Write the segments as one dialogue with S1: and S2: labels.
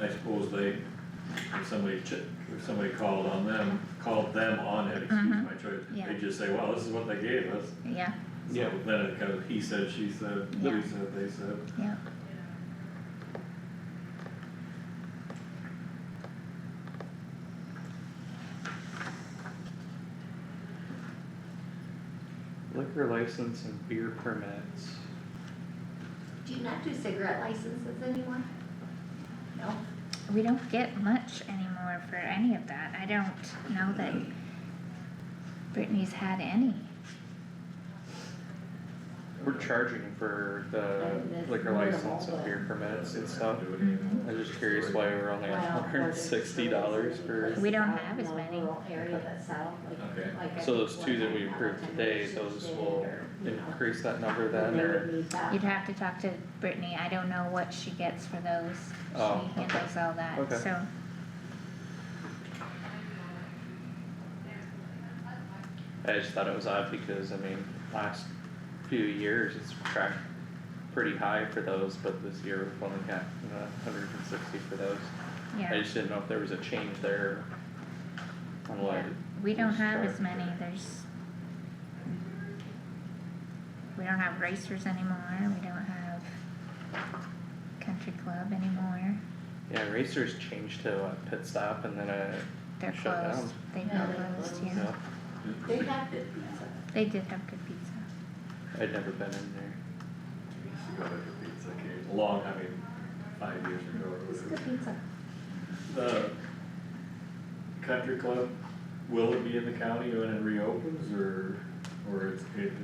S1: I suppose they, if somebody ch- if somebody called on them, called them on it, excuse
S2: Mhm.
S1: my choice,
S2: Yeah.
S1: they just say, well, this is what they gave us.
S2: yeah,
S1: So
S3: Yeah.
S1: Then it kind of, he said, she said,
S2: Yeah.
S1: we said, they said,
S2: yeah.
S3: Liquor license and beer permits.
S4: Do you not do cigarette licenses anymore? No?
S2: We don't get much anymore for any of that. I don't know that Brittany's had any.
S3: We're charging for the liquor license and beer permits and stuff.
S1: do it anymore.
S3: I'm just curious why we're only at
S4: Well,
S3: hundred and
S4: there's
S3: sixty dollars for,
S2: We don't have as many.
S4: Rural area that's out,
S1: Okay.
S4: like, like. I
S3: so those
S4: think
S3: two
S4: one
S3: that we
S4: I had
S3: approved
S4: on
S3: today,
S4: Tuesday
S3: those will
S4: or, you know,
S3: increase that number then,
S4: they
S3: or?
S4: would need that.
S2: You'd have to talk to Brittany. I don't know what she gets for those.
S3: Oh,
S2: She
S3: okay.
S2: handles all that,
S3: Okay.
S2: so.
S3: I just thought it was odd because, I mean, last few years, it's tracked pretty high for those, but this year we've only got hundred and sixty for those. I
S2: Yeah,
S3: just didn't know if there was a change there on what,
S2: Yeah. we don't
S3: Just
S2: have as
S3: charge
S2: many.
S3: for-
S2: There's. We don't have racers anymore. We don't have country club anymore.
S3: yeah, racers changed to what, pit stop and then a,
S2: They're
S3: Shut down.
S2: closed. They've
S4: Yeah,
S2: been
S4: they're
S2: closed,
S4: closed.
S3: you
S2: yeah.
S3: know,
S4: They got good pizza.
S2: They did have good pizza.
S3: I'd never been in there.
S1: She got like a pizza cake, long, I mean, five years ago or
S4: It's
S1: whatever.
S4: good pizza.
S1: The country club, will it be in the county when it reopens or, or it's, it, it,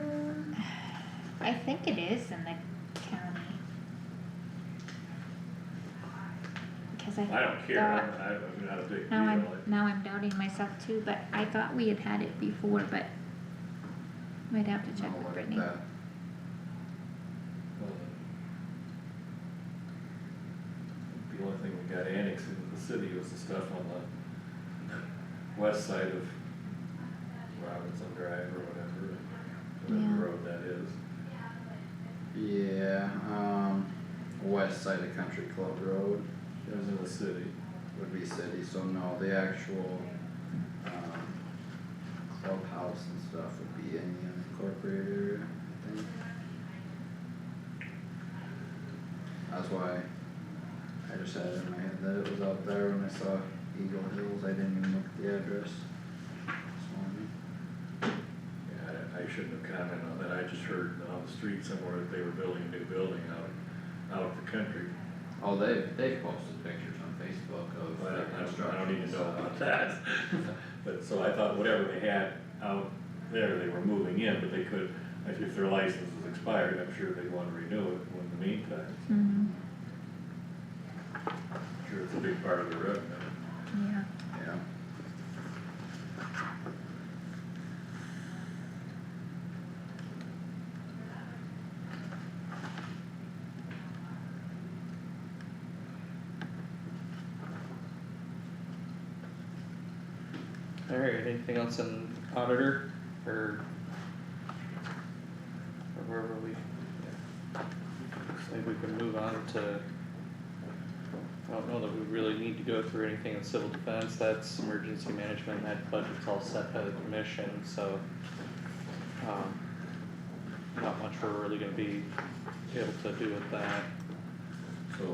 S3: Mm.
S2: I think it is in the county. Cause I.
S1: I don't care,
S2: thought-
S1: I'm, I'm not a big deal,
S2: Now I'm,
S1: like,
S2: now I'm doubting myself too, but I thought we had had it before, but might have to check
S5: I'll
S2: with
S5: look at
S2: Brittany.
S5: that.
S1: well, The only thing we got annexed into the city was the stuff on the west side of Robinson Drive or whatever,
S2: Yeah.
S1: whatever road that is.
S5: Yeah, um, west side of Country Club Road
S1: It was in the city.
S5: would be city, so no, the actual, um, clubhouse and stuff would be in the unincorporated area, I think. That's why I just had it in my head that it was out there when I saw Eagle Hills, I didn't even look at the address this morning.
S1: Yeah, I, I shouldn't have commented on that, I just heard on the street somewhere that they were building a new building out, out of the country.
S5: Oh, they, they posted pictures on Facebook of
S1: But I
S5: their
S1: don't, I don't
S5: construction,
S1: even know about
S5: so.
S1: that. But, so I thought whatever they had out there, they were moving in, but they could, if their license was expired, I'm sure they'd wanna renew it in the meantime.
S2: Mhm,
S1: I'm Sure, it's a big part of the revenue.
S2: yeah,
S5: Yeah.
S3: Alright, anything else in auditor or? Or where were we? Yeah. Looks like we can move on to. I don't know that we really need to go through anything in civil defense, that's emergency management, that budget's all set by the commission, so. Um, not much we're really gonna be able to do with that.
S1: So.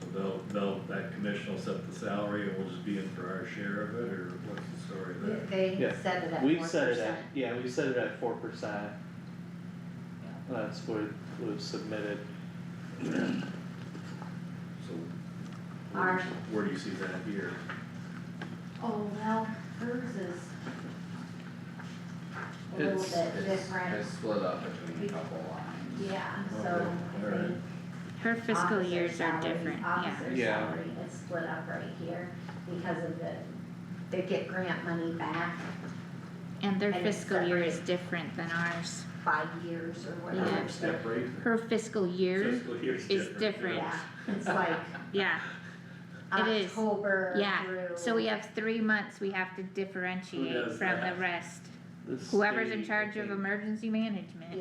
S1: So they'll, they'll, that commission will set the salary and we'll just be in for our share of it, or what's the story there?
S4: They
S3: Yeah.
S4: set it at
S3: We
S4: four
S3: set it at,
S4: percent.
S3: yeah, we set it at four percent. That's what was submitted.
S1: So. where-
S4: Our-
S1: Where do you see that here?
S4: Oh, well, hers is a little
S3: It's-
S4: bit
S5: It's,
S4: different,
S5: it's split up between a couple lines.
S4: yeah, so
S1: Okay,
S4: I
S1: alright.
S4: think
S2: her fiscal
S4: officer
S2: years are
S4: salary,
S2: different, yeah,
S4: Officer
S3: Yeah.
S4: salary, it's split up right here because of the, they get grant money back
S2: and their
S4: And it's
S2: fiscal year is
S4: separate.
S2: different than ours.
S4: five years or
S2: Yeah.
S4: whatever. so-
S1: Step rate?
S2: Her fiscal year,
S1: Fiscal year's
S2: is different.
S4: Yeah, it's like
S2: yeah, It is.
S4: October
S2: Yeah,
S4: through.
S2: so we have three months we have to differentiate
S1: does
S2: from the
S1: that?
S2: rest.
S3: The
S2: Whoever's in
S3: state, I
S2: charge of
S3: think-
S2: emergency management,